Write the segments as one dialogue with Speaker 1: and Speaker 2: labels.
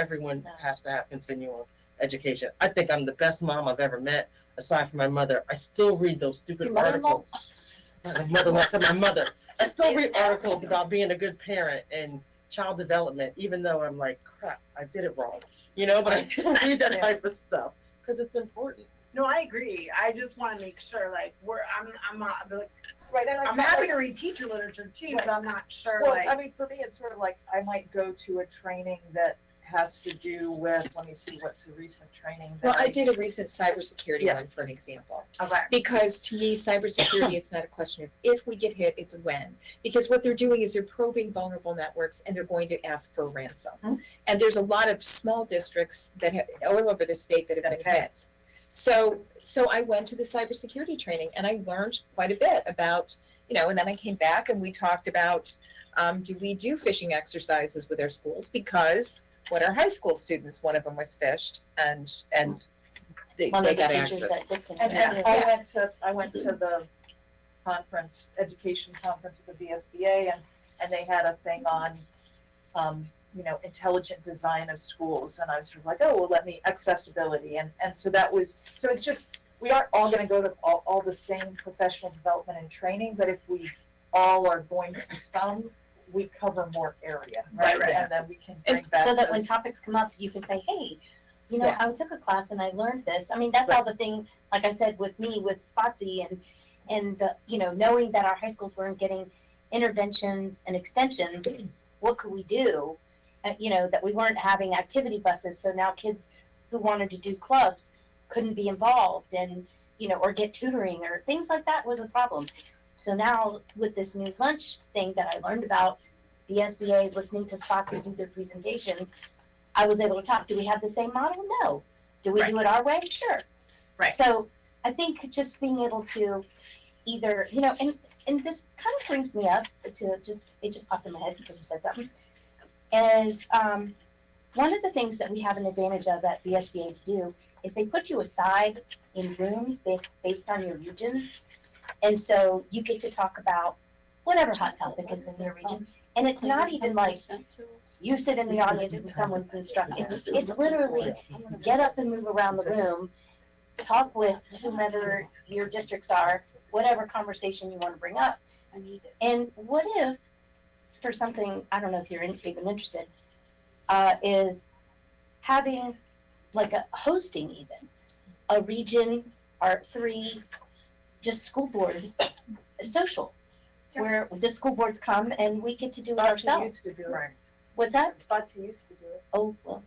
Speaker 1: everyone has to have continual education. I think I'm the best mom I've ever met, aside from my mother. I still read those stupid
Speaker 2: Your mother-in-law?
Speaker 1: articles. My mother-in-law said my mother. I still read articles about being a good parent and child development, even though I'm like, crap, I did it wrong. You know, but I still read that type of stuff because it's important.
Speaker 3: No, I agree. I just want to make sure, like, we're I'm I'm not like
Speaker 2: Right, and
Speaker 3: I'm
Speaker 2: I'm
Speaker 3: happy
Speaker 2: having,
Speaker 3: to read teacher literature too, but I'm not sure
Speaker 2: well,
Speaker 3: like
Speaker 2: I mean, for me, it's sort of like, I might go to a training that has to do with, let me see, what's a recent training that
Speaker 4: Well, I
Speaker 2: I-
Speaker 4: did a recent cybersecurity
Speaker 2: Yeah.
Speaker 4: one for an example,
Speaker 3: okay.
Speaker 4: because to me, cybersecurity, it's not a question of if we get hit, it's when. Because what they're doing is they're probing vulnerable networks and they're going to ask for a ransom.
Speaker 2: Mm-hmm.
Speaker 4: And there's a lot of small districts that have, all over the state that have been
Speaker 2: Okay.
Speaker 4: hit. So, so I went to the cybersecurity training and I learned quite a bit about, you know, and then I came back and we talked about, um, do we do phishing exercises with our schools? Because what our high school students, one of them was phished and, and they,
Speaker 5: One
Speaker 4: they
Speaker 5: of the
Speaker 4: got
Speaker 5: teachers
Speaker 4: access.
Speaker 5: that gets in.
Speaker 2: And
Speaker 4: Yeah.
Speaker 2: and I went to, I went to the conference, education conference with the VSBA and, and they had a thing on, um, you know, intelligent design of schools. And I was sort of like, oh, well, let me accessibility. And, and so that was, so it's just, we aren't all gonna go to all, all the same professional development and training, but if we all are going to some, we cover more area, right?
Speaker 3: Right, right.
Speaker 2: And then we can bring
Speaker 5: And
Speaker 2: back
Speaker 5: so that when
Speaker 2: those-
Speaker 5: topics come up, you can say, hey, you know,
Speaker 4: Yeah.
Speaker 5: I took a class and I learned this. I mean, that's all the thing, like I said, with me, with Spotsy and, and the, you know, knowing that our high schools weren't getting interventions and extensions, what could we do? Uh, you know, that we weren't having activity buses, so now kids who wanted to do clubs couldn't be involved and, you know, or get tutoring or things like that was a problem. So now with this new lunch thing that I learned about, the SBA listening to Spotsy do their presentation, I was able to talk. Do we have the same model? No. Do we do it our way? Sure.
Speaker 3: Right.
Speaker 5: So I think just being able to either, you know, and and this kind of brings me up to just it just popped in my head because you said something. Is um one of the things that we have an advantage of at VSBA to do is they put you aside in rooms based based on your regions. And so you get to talk about whatever hot topic is in your region. And it's not even like you sit in the audience and someone's instructing. It's literally get up and move around the room, talk with whomever your districts are, whatever conversation you want to bring up. And what if, for something, I don't know if you're in- even interested, uh, is having like a hosting even, a region or three, just school board social,
Speaker 3: Yeah.
Speaker 5: where the school boards come and we get to do it
Speaker 2: Spotsy
Speaker 5: ourselves.
Speaker 2: used to do
Speaker 3: Right.
Speaker 2: it.
Speaker 5: What's that?
Speaker 2: Spotsy used to do it.
Speaker 5: Oh, well.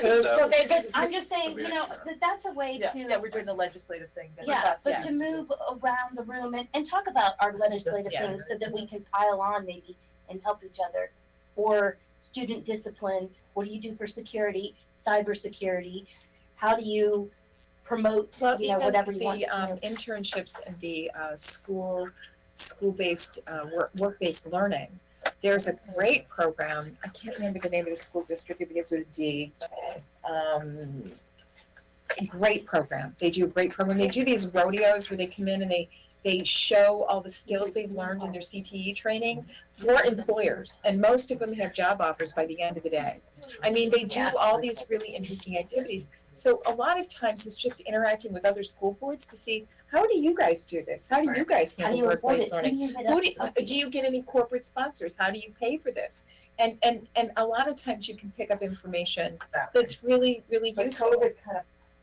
Speaker 6: So-
Speaker 2: they, they,
Speaker 5: I'm just saying, you know, that that's a way
Speaker 2: Yeah,
Speaker 5: to.
Speaker 2: yeah, we're doing the legislative thing. that
Speaker 5: Yeah,
Speaker 2: that's-
Speaker 5: but to move around the room and, and talk about our legislative
Speaker 4: Yeah.
Speaker 5: things so that we can pile on maybe and help each other. Or student discipline, what do you do for security, cybersecurity? How do you promote,
Speaker 4: Well,
Speaker 5: you know,
Speaker 4: even
Speaker 5: whatever you want?
Speaker 4: the
Speaker 5: you
Speaker 4: um
Speaker 5: know?
Speaker 4: internships and the uh school, school-based uh work, work-based learning. There's a great program, I can't remember the name of the school district, it begins with a D. Um, a great program, they do a great program, they do these rodeos where they come in and they they show all the skills they've learned in their CTE training for employers, and most of them have job offers by the end of the day. I mean, they do all these really interesting activities. So a lot of times it's just interacting with other school boards to see, how do you guys do this? How do you guys
Speaker 5: How do
Speaker 4: handle
Speaker 5: you avoid it?
Speaker 4: workplace
Speaker 5: How do
Speaker 4: learning?
Speaker 5: you even
Speaker 4: Who do,
Speaker 5: up-
Speaker 4: do you get any corporate sponsors? How do you pay for this? And, and, and a lot of times you can pick up information that's really, really
Speaker 2: But
Speaker 4: useful.
Speaker 2: COVID kind of,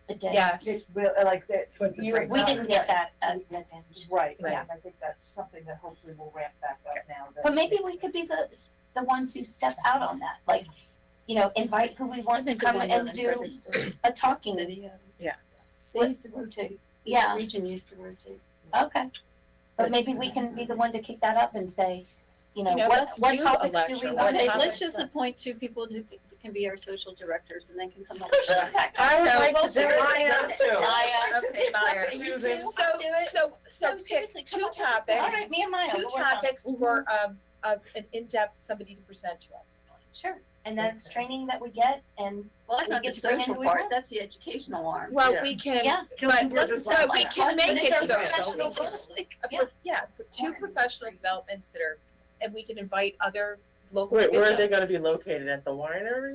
Speaker 5: a day?
Speaker 4: Yes,
Speaker 2: it's real, uh, like that,
Speaker 3: Put the
Speaker 2: you were-
Speaker 3: brakes
Speaker 5: We
Speaker 3: on.
Speaker 5: didn't get that as an advantage.
Speaker 2: right,
Speaker 4: Right.
Speaker 2: yeah, and I think that's something that hopefully will ramp back up now that.
Speaker 5: But maybe we could be the, the ones who step out on that, like, you know, invite who we want to come and do a talking,
Speaker 4: Yeah.
Speaker 5: What-
Speaker 7: They used to rotate. Each
Speaker 5: yeah.
Speaker 7: Region used to rotate.
Speaker 5: Okay, but maybe we can be the one to kick that up and say, you know,
Speaker 4: You know,
Speaker 5: what,
Speaker 4: let's
Speaker 5: what
Speaker 4: do a
Speaker 5: topics do
Speaker 4: lecture.
Speaker 5: we
Speaker 4: What
Speaker 5: want
Speaker 7: Okay,
Speaker 5: to?
Speaker 4: topics
Speaker 7: let's just
Speaker 4: then?
Speaker 7: appoint two people who c- can be our social directors and they can come up with.
Speaker 5: Social impact.
Speaker 4: I would
Speaker 5: So-
Speaker 4: like to do it.
Speaker 5: Maya.
Speaker 4: Okay, Maya. So, so, so
Speaker 7: No,
Speaker 4: pick
Speaker 7: seriously, come
Speaker 4: two
Speaker 7: up with-
Speaker 5: All
Speaker 4: topics,
Speaker 5: right, me and Maya,
Speaker 4: two
Speaker 5: we'll work on it. Mm-hmm.
Speaker 4: topics for, um, uh, an in-depth, somebody to present to us.
Speaker 5: Sure, and that's training that we get and,
Speaker 7: Well, that's
Speaker 5: We
Speaker 7: not
Speaker 5: get
Speaker 7: the
Speaker 5: to bring in
Speaker 7: social
Speaker 5: who we
Speaker 7: part,
Speaker 5: want.
Speaker 7: that's the educational arm.
Speaker 4: Well,
Speaker 1: Yeah.
Speaker 4: we can,
Speaker 5: yeah,
Speaker 3: Kills
Speaker 4: But-
Speaker 3: two birds with
Speaker 4: but
Speaker 3: one
Speaker 4: we
Speaker 3: stone.
Speaker 4: can
Speaker 5: But
Speaker 4: make
Speaker 5: it's
Speaker 4: it
Speaker 5: our
Speaker 4: so.
Speaker 5: professional goals.
Speaker 4: a
Speaker 5: Yeah.
Speaker 4: prof- Yeah, two professional developments that are, and we can invite other local
Speaker 1: Wait, where are they
Speaker 4: officials.
Speaker 1: going to be located? At the winery?